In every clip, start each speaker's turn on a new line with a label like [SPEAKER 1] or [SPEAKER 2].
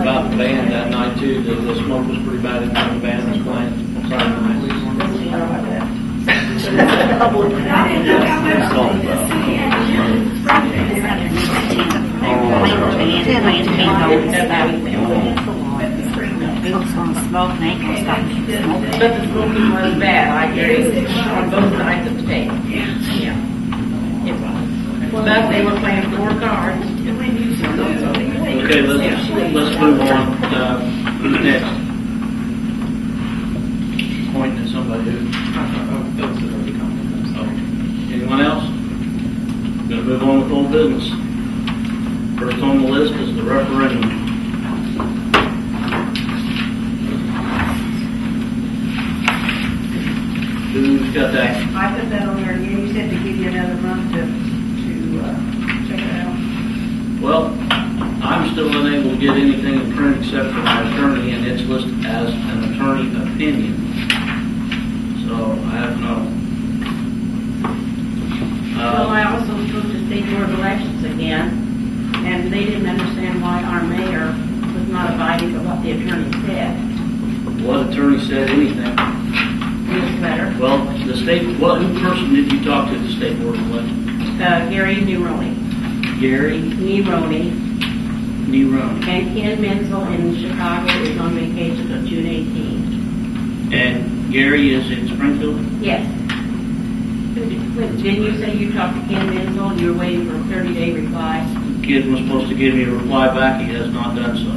[SPEAKER 1] about the band that night too, the, the smoke was pretty bad in the band was playing on Saturday night.
[SPEAKER 2] I didn't know how much the city had to do.
[SPEAKER 3] But the smoking was bad, I guess, on both sides of the state. Yeah. It was. But they were playing four cards.
[SPEAKER 1] Okay, let's, let's move on, uh, to the next. Point to somebody who. Oh. Anyone else? Gonna move on with old business. First on the list is the referendum. Who's got that?
[SPEAKER 4] I put that on there, again. you said to give you another month to, to, uh, check it out.
[SPEAKER 1] Well, I'm still unable to get anything in print except for my attorney, and it's listed as an attorney opinion. So I have no.
[SPEAKER 3] Well,
[SPEAKER 1] Uh,
[SPEAKER 3] I also spoke to state board of elections again, and they didn't understand why our mayor was not abiding by what the attorney said
[SPEAKER 1] What attorney said anything?
[SPEAKER 3] in his letter.
[SPEAKER 1] Well, the state, what, who person did you talk to at the state board of elections?
[SPEAKER 3] Uh, Gary Neroli,
[SPEAKER 1] Gary
[SPEAKER 3] Neroli,
[SPEAKER 1] Nerone.
[SPEAKER 3] and Ken Menzel in Chicago is on vacation of June 18.
[SPEAKER 1] And Gary is in Springfield?
[SPEAKER 3] Yes. Didn't you say you talked to Ken Menzel, and you're waiting for a 30-day reply?
[SPEAKER 1] The Kid was supposed to give me a reply back, he has not done so.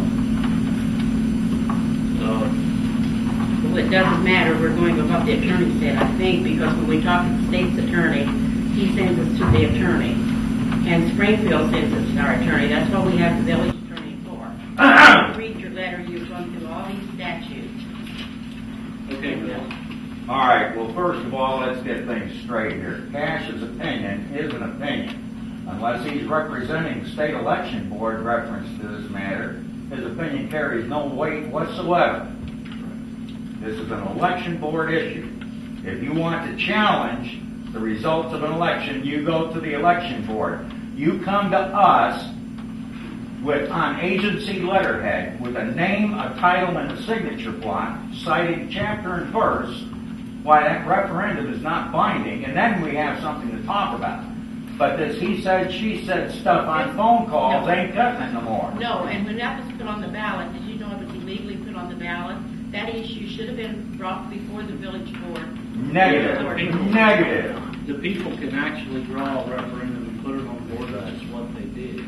[SPEAKER 1] Uh, So,
[SPEAKER 3] Well, it doesn't matter, we're going with what the attorney said, I think, because when we talk to the state's attorney, he sends us to the attorney. And Springfield sends us to our attorney, that's what we have the village attorney for. Read your letter, you've gone through all these statutes.
[SPEAKER 1] okay, Bill.
[SPEAKER 5] All right, well, first of all, let's get things straight here. Cash's opinion is an opinion. Unless he's representing the state election board reference to this matter, his opinion carries no weight whatsoever. This is an election board issue. If you want to challenge the results of an election, you go to the election board. You come to us with, on agency letterhead, with a name, a title, and a signature block citing chapter and verse, why that referendum is not binding, and then we have something to talk about. But this he said, she said stuff on phone calls ain't cutting it no more.
[SPEAKER 3] No, and when that was put on the ballot, did you know it was illegally put on the ballot? That issue should have been brought before the village board.
[SPEAKER 5] Negative, negative.
[SPEAKER 1] The people can actually draw a referendum and put it on board, that's what they did.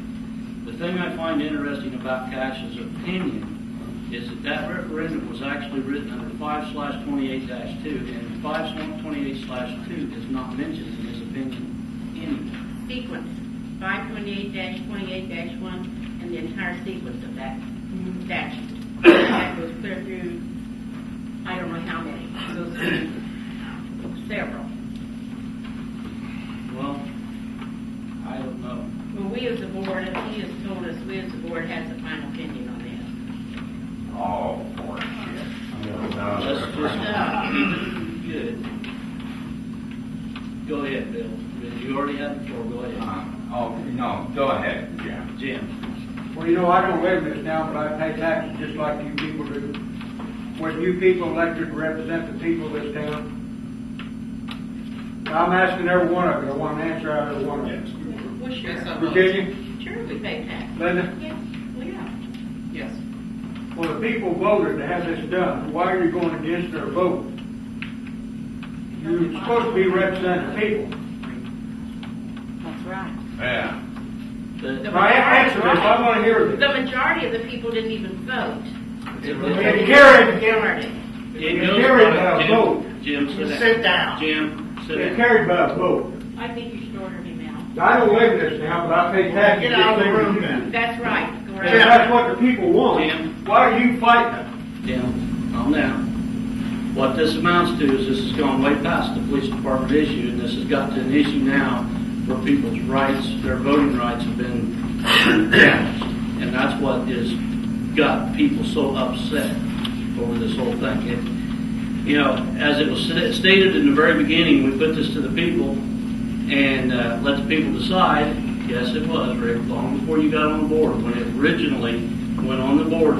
[SPEAKER 1] The thing I find interesting about Cash's opinion is that that referendum was actually written under five slash twenty-eight dash two, and five slash twenty-eight slash two is not mentioned in his opinion anywhere.
[SPEAKER 3] sequence, five twenty-eight twenty-eight one, and the entire sequence of that statute. That goes clear through, I don't know how many, It goes through several.
[SPEAKER 1] Well, I don't know.
[SPEAKER 3] Well, we as a board, and he has told us, we as a board has a final opinion on this.
[SPEAKER 5] Oh, bullshit.
[SPEAKER 1] Let's
[SPEAKER 5] Uh,
[SPEAKER 1] just, good. Go ahead, Bill, you already had the floor, go ahead.
[SPEAKER 5] Um, Oh, no, go ahead, Jim.
[SPEAKER 1] Jim?
[SPEAKER 6] Well, you know, I don't live in this now, but I pay taxes just like you people do. When you people elected to represent the people of this town, I'm asking every one of you, I want an answer out of every one of you.
[SPEAKER 3] Well, sure.
[SPEAKER 6] Virginia,
[SPEAKER 3] Sure, we pay tax.
[SPEAKER 6] Linda,
[SPEAKER 3] Yes, we are. Yes.
[SPEAKER 6] well, the people voted to have this done, why are you going against their vote? You're supposed to be representing the people.
[SPEAKER 3] That's right.
[SPEAKER 5] Yeah.
[SPEAKER 1] The-
[SPEAKER 6] Now, a- answer this, I wanna hear
[SPEAKER 3] The
[SPEAKER 6] this.
[SPEAKER 3] majority of the people didn't even vote.
[SPEAKER 6] It carried,
[SPEAKER 3] Majority.
[SPEAKER 1] It
[SPEAKER 6] It
[SPEAKER 1] goes
[SPEAKER 6] carried
[SPEAKER 1] by-
[SPEAKER 6] by a
[SPEAKER 1] Jim-
[SPEAKER 6] vote.
[SPEAKER 1] Jim, sit down.
[SPEAKER 6] Sit down.
[SPEAKER 1] Jim, sit
[SPEAKER 6] it
[SPEAKER 1] down.
[SPEAKER 6] carried by a vote.
[SPEAKER 3] I think you should order him out.
[SPEAKER 6] I don't live in this now, but I pay taxes. Get out of the room then.
[SPEAKER 3] That's right. Go
[SPEAKER 6] And
[SPEAKER 3] right
[SPEAKER 6] if
[SPEAKER 3] ahead.
[SPEAKER 6] that's what the people want,
[SPEAKER 1] Jim.
[SPEAKER 6] why are you fighting?
[SPEAKER 1] Jim, calm down. What this amounts to is this has gone way past the police department issue, and this has got to an issue now where people's rights, their voting rights have been damaged. And that's what has got people so upset over this whole thing. It- You know, as it was sta- stated in the very beginning, we put this to the people and uh, let the people decide. Yes, it was, Rick, long before you got on board, when it originally went on the board